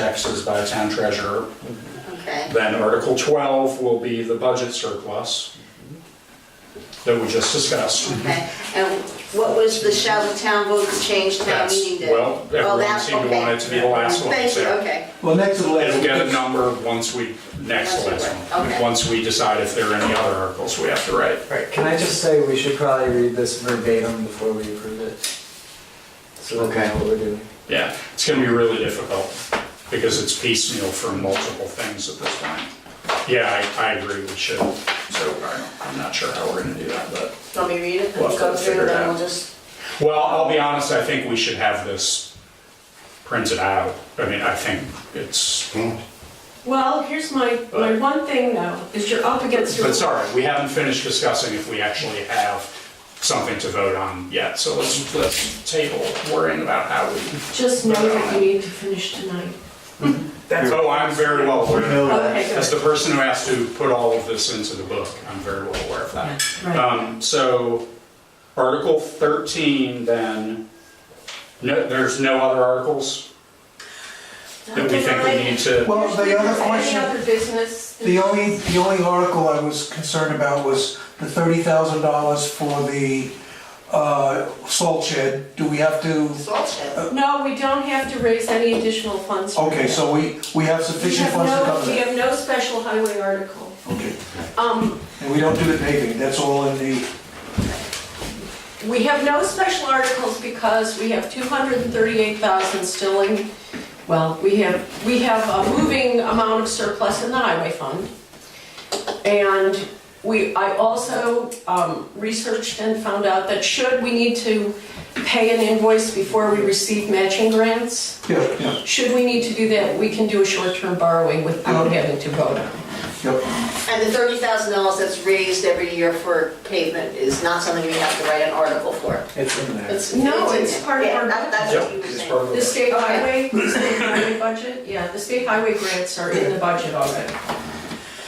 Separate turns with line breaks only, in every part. taxes by town treasurer.
Okay,
Then Article 12 will be the budget surplus that we just discussed.
okay. And what was the shall the town vote to change town
That's,
meeting day?
well,
Oh,
everyone
that's
seemed to
okay.
want it to be the last one.
Thank you,
so
okay.
Well, next to the last.
It'll get a number once we, next to last
Okay.
one, once we decide if there are any other articles we have to write.
Right, can I just say we should probably read this verbatim before we approve it? So that we know what we're doing.
Yeah, it's gonna be really difficult because it's piecemeal for multiple things at this point. Yeah, I, I agree, we should, so I- I'm not sure how we're gonna do that, but.
Let me read it,
We'll
and
have
go
to
through,
figure it
then
out.
we'll just,
Well, I'll be honest, I think we should have this printed out. I mean, I think it's,
Well, here's my, my one thing though, is you're up against your.
but sorry, we haven't finished discussing if we actually have something to vote on yet. So let's, let's table worrying about how we.
Just know that you need to finish tonight.
Oh, I'm very well aware.
Okay,
As
good.
the person who has to put all of this into the book, I'm very well aware of that.
Right.
Um, so Article 13 then, no, there's no other articles that we think we need to.
Well, the other
Any
question,
other business?
the only, the only article I was concerned about was the thirty thousand dollars for the, uh, salt shed. Do we have to,
Salt shed.
No, we don't have to raise any additional funds. for
okay,
that.
so we, we have
We
sufficient
have
funds to
no,
cover
we
that?
have no special highway article.
Okay,
Um,
and we don't do the paving, that's all in the,
we have no special articles because we have two hundred and thirty-eight thousand still in, well, we have, we have a moving amount of surplus in the highway fund. And we, I also um, researched and found out that should we need to pay an invoice before we receive matching grants,
yeah, yeah,
should we need to do that, we can do a short-term borrowing without having to vote on it.
yep.
And the thirty thousand dollars that's raised every year for pavement is not something we have to write an article for.
It's in there.
It's-
No,
in
it's
there.
part of
Yeah,
our-
that- That's what you were
It's
saying.
part of
The
the-
state highway, the state highway budget, yeah, the state highway grants are in the budget already.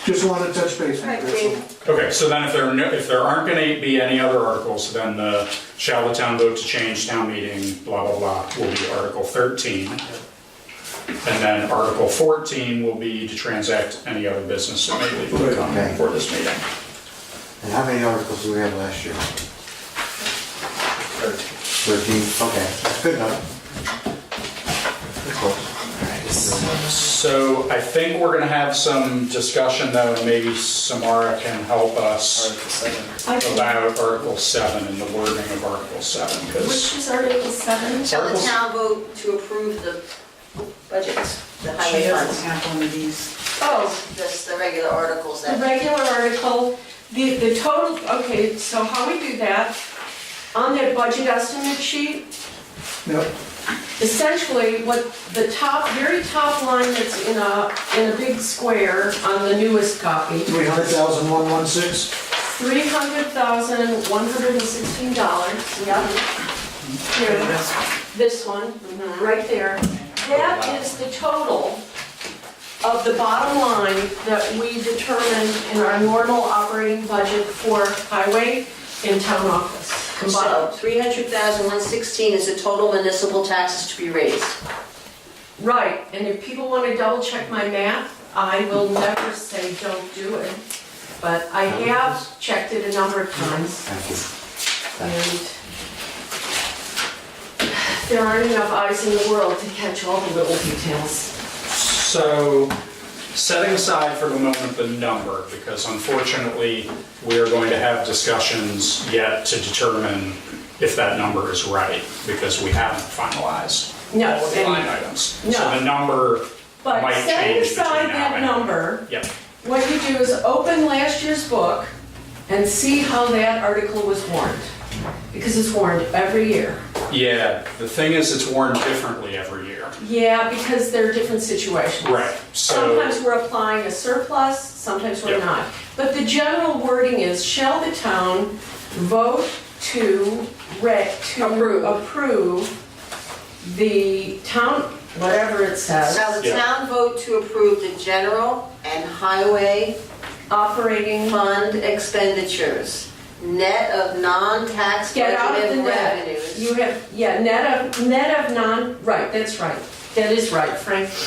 Just wanted to touch base. with
Right,
that,
Dave.
so-
Okay, so then if there, are no- if there aren't gonna be any other articles, then the shall the town vote to change town meeting, blah, blah, blah, will be Article 13. And then Article 14 will be to transact any other business that may legally come
Okay.
before this meeting.
And how many articles did we have last year? Thirteen, okay, that's good enough. That's close.
So I think we're gonna have some discussion though, and maybe Samara can help us
Article seven.
I think-
about Article 7 and the wording of Article 7,
Which
because
is Article 7?
Shall the town vote to approve the budgets, the highway funds?
have one of these.
Oh,
Just the regular articles
the
that,
regular article, the, the total, okay, so how we do that, on that budget estimate sheet,
Yep,
essentially what the top, very top line that's in a, in a big square on the newest copy,
three hundred thousand, one, one, six,
$300,116.
Yep.
Here. this one, Mm-hmm. right there. That is the total of the bottom line that we determined in our normal operating budget for highway and town office
so
combined.
three hundred thousand one sixteen is the total municipal taxes to be raised.
Right, and if people want to double check my math, I will never say don't do it. But I have checked it a number of times
Thank you.
and there aren't enough eyes in the world to catch all the little details.
So, setting aside for the moment the number, because unfortunately, we are going to have discussions yet to determine if that number is right, because we haven't finalized
No,
all of the
and-
line items. So
no.
the number
But
might change between now
setting aside that
and-
number,
Yep,
what you do is open last year's book and see how that article was warned. Because it's warned every year.
yeah, the thing is, it's worn differently every year.
Yeah, because there are different situations.
Right, so.
Sometimes we're applying a surplus, sometimes we're
Yeah.
not. But the general wording is, shall the town vote to re, to approve the town, whatever it
Shall
says,
the
Yeah.
town vote to approve the general and highway
operating
fund expenditures, net of non-tax
Get out of the
budgeted
net.
revenues?
You have, yeah, net of, net of non, right, that's right. That is right, Frank.